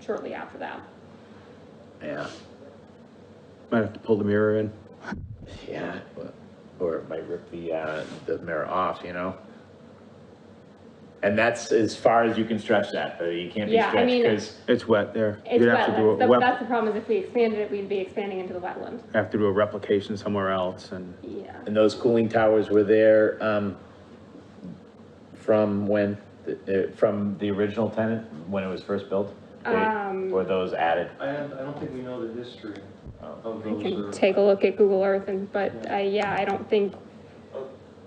shortly after that. Yeah, Might have to pull the mirror in. yeah, but- or it might rip the, uh, the mirror off, you know? And that's as far as you can stretch that, but you can't be Yeah, I stretched, mean- because, It's wet there. It's You'd have to do wetland, a, That- wep- that's the problem is if we expanded it, we'd be expanding into the wetland, have to do a replication somewhere else and yeah. and those cooling towers were there, um, from when, uh, from the original tenant, when it was first built? Or- Um, Were those added? I have, I don't think we know the history uh, of I those. can or- take a look at Google Earth and, but, uh, yeah, I don't think,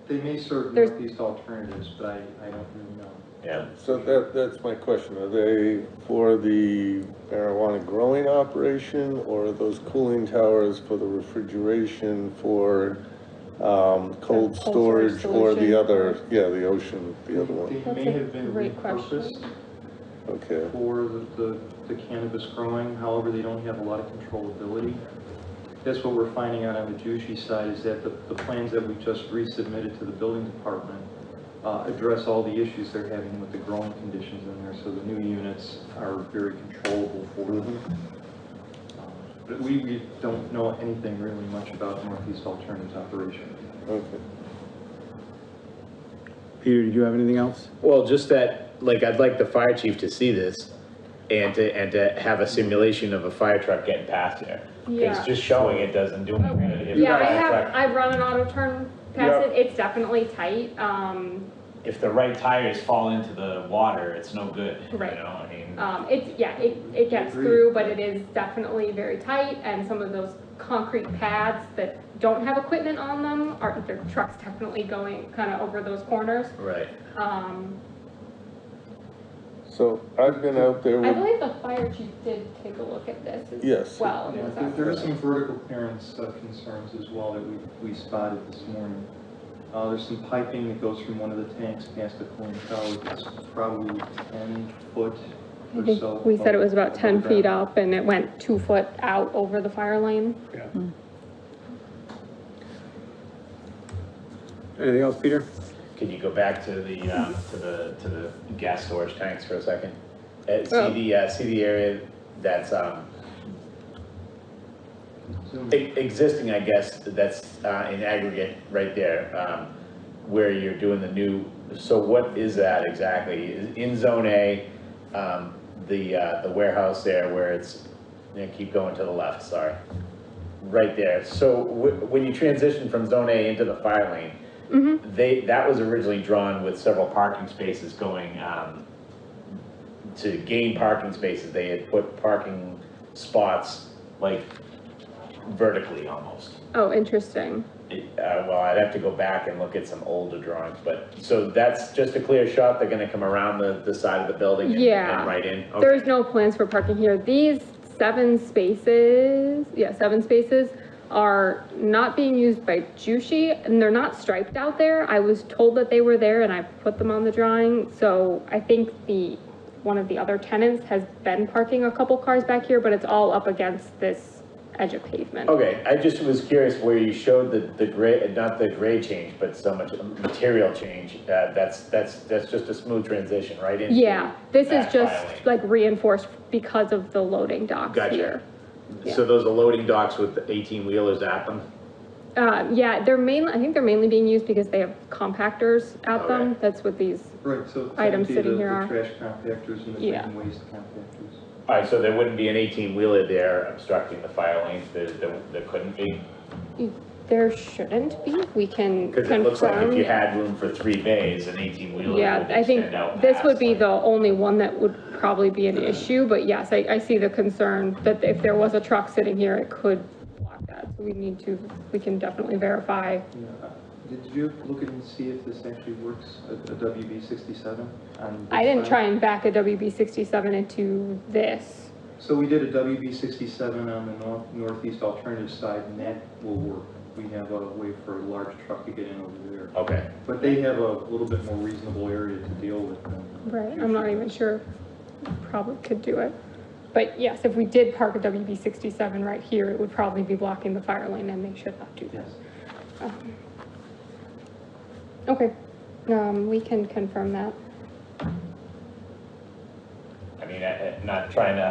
They may serve There's- northeast alternatives, but I, I don't really know. Yeah. So that, that's my question, are they for the marijuana growing operation, or are those cooling towers for the refrigeration for, um, cold cold storage storage, or solution. the other, yeah, the ocean, the other one, They That's may a have been great question. repurposed okay. for the- the, the cannabis growing, however, they don't have a lot of controllability. That's what we're finding out on the Jushi side, is that the, the plans that we just resubmitted to the building department uh, address all the issues they're having with the growing conditions in there, so the new units are very controllable for them. Um, But we, we don't know anything really much about Northeast Alternatives operation. Okay. Peter, did you have anything else? Well, just that, like, I'd like the fire chief to see this and to, and to have a simulation of a fire truck getting past there. Yeah. Because just showing it doesn't do Oh, anything. If yeah, the I fire have, truck- I've run an auto turn past it, it's definitely tight, um, if the right tires fall into the water, it's no good, you know, Right. I mean, um, it's, yeah, it, it gets Agreed. through, but it is definitely very tight, and some of those concrete pads that don't have equipment on them, are, their trucks definitely going kinda over those corners, Right. um, So I've been out there I with, believe the fire chief did take a look at this as Yes. well. and Yeah, was there- out. There are some vertical clearance uh, concerns as well that we, we spotted this morning. Uh, there's some piping that goes from one of the tanks past the cooling tower, that's probably ten foot I or think so. we said it was about above ten ground. feet up and it went two foot out over the fire lane. Anything else, Peter? Could you go back to the, um, to the, to the gas storage tanks for a second? Uh, Oh. see the, uh, see the area that's, um, Zoom. e- existing, I guess, that's, uh, in aggregate right there, um, where you're doing the new, so what is that exactly? Is In zone A, um, the, uh, the warehouse there where it's, you know, keep going to the left, sorry. Right there. So wh- when you transition from zone A into the fire lane, Mhm. they, that was originally drawn with several parking spaces going, um, to gain parking spaces, they had put parking spots like vertically almost. Oh, interesting. It- Uh, well, I'd have to go back and look at some older drawings, but, so that's just a clear shot, they're gonna come around the, the side of the building and, Yeah. and right in? Okay. There's no plans for parking here. These seven spaces, yeah, seven spaces are not being used by Jushi and they're not striped out there. I was told that they were there and I put them on the drawing. So I think the, one of the other tenants has been parking a couple cars back here, but it's all up against this edge of pavement. Okay, I just was curious where you showed the, the gray, not the gray change, but so much material change, uh, that's, that's, that's just a smooth transition, right? into Yeah, this is back just filing. like reinforced because of the loading docks Gotcha. here. So those are loading docks with eighteen wheelers at them? Uh, yeah, they're mainly, I think they're mainly being used because they have compactors at them, Okay. that's what these, Right, so. items technically sitting the- here the are- Trash compactors and the Yeah. second waste compactors. Alright, so there wouldn't be an eighteen wheeler there obstructing the fire lanes, there, there, there couldn't be? there shouldn't be, we can Cause it looks like if you confirm. had room for three bays, an eighteen wheeler would Yeah, I think extend out this would past, be like- the only one that would probably be an issue, but yes, I, I see the concern that if there was a truck sitting here, it could block that, so we need to, we can definitely verify. Yeah. Uh, Did you look and see if this actually works, a a WB sixty-seven? I didn't try and back a WB sixty-seven into this, So we did a WB sixty-seven on the nor- northeast alternative side, and that will work. We have a way for a large truck to get in over there. Okay, But they have a little bit more reasonable area to deal with than. Right, I'm not even sure, if probably could do it. But yes, if we did park a WB sixty-seven right here, it would probably be blocking the fire lane and they should not do that. Yes. Um, Okay, um, we can confirm that. I mean, I, I'm not trying to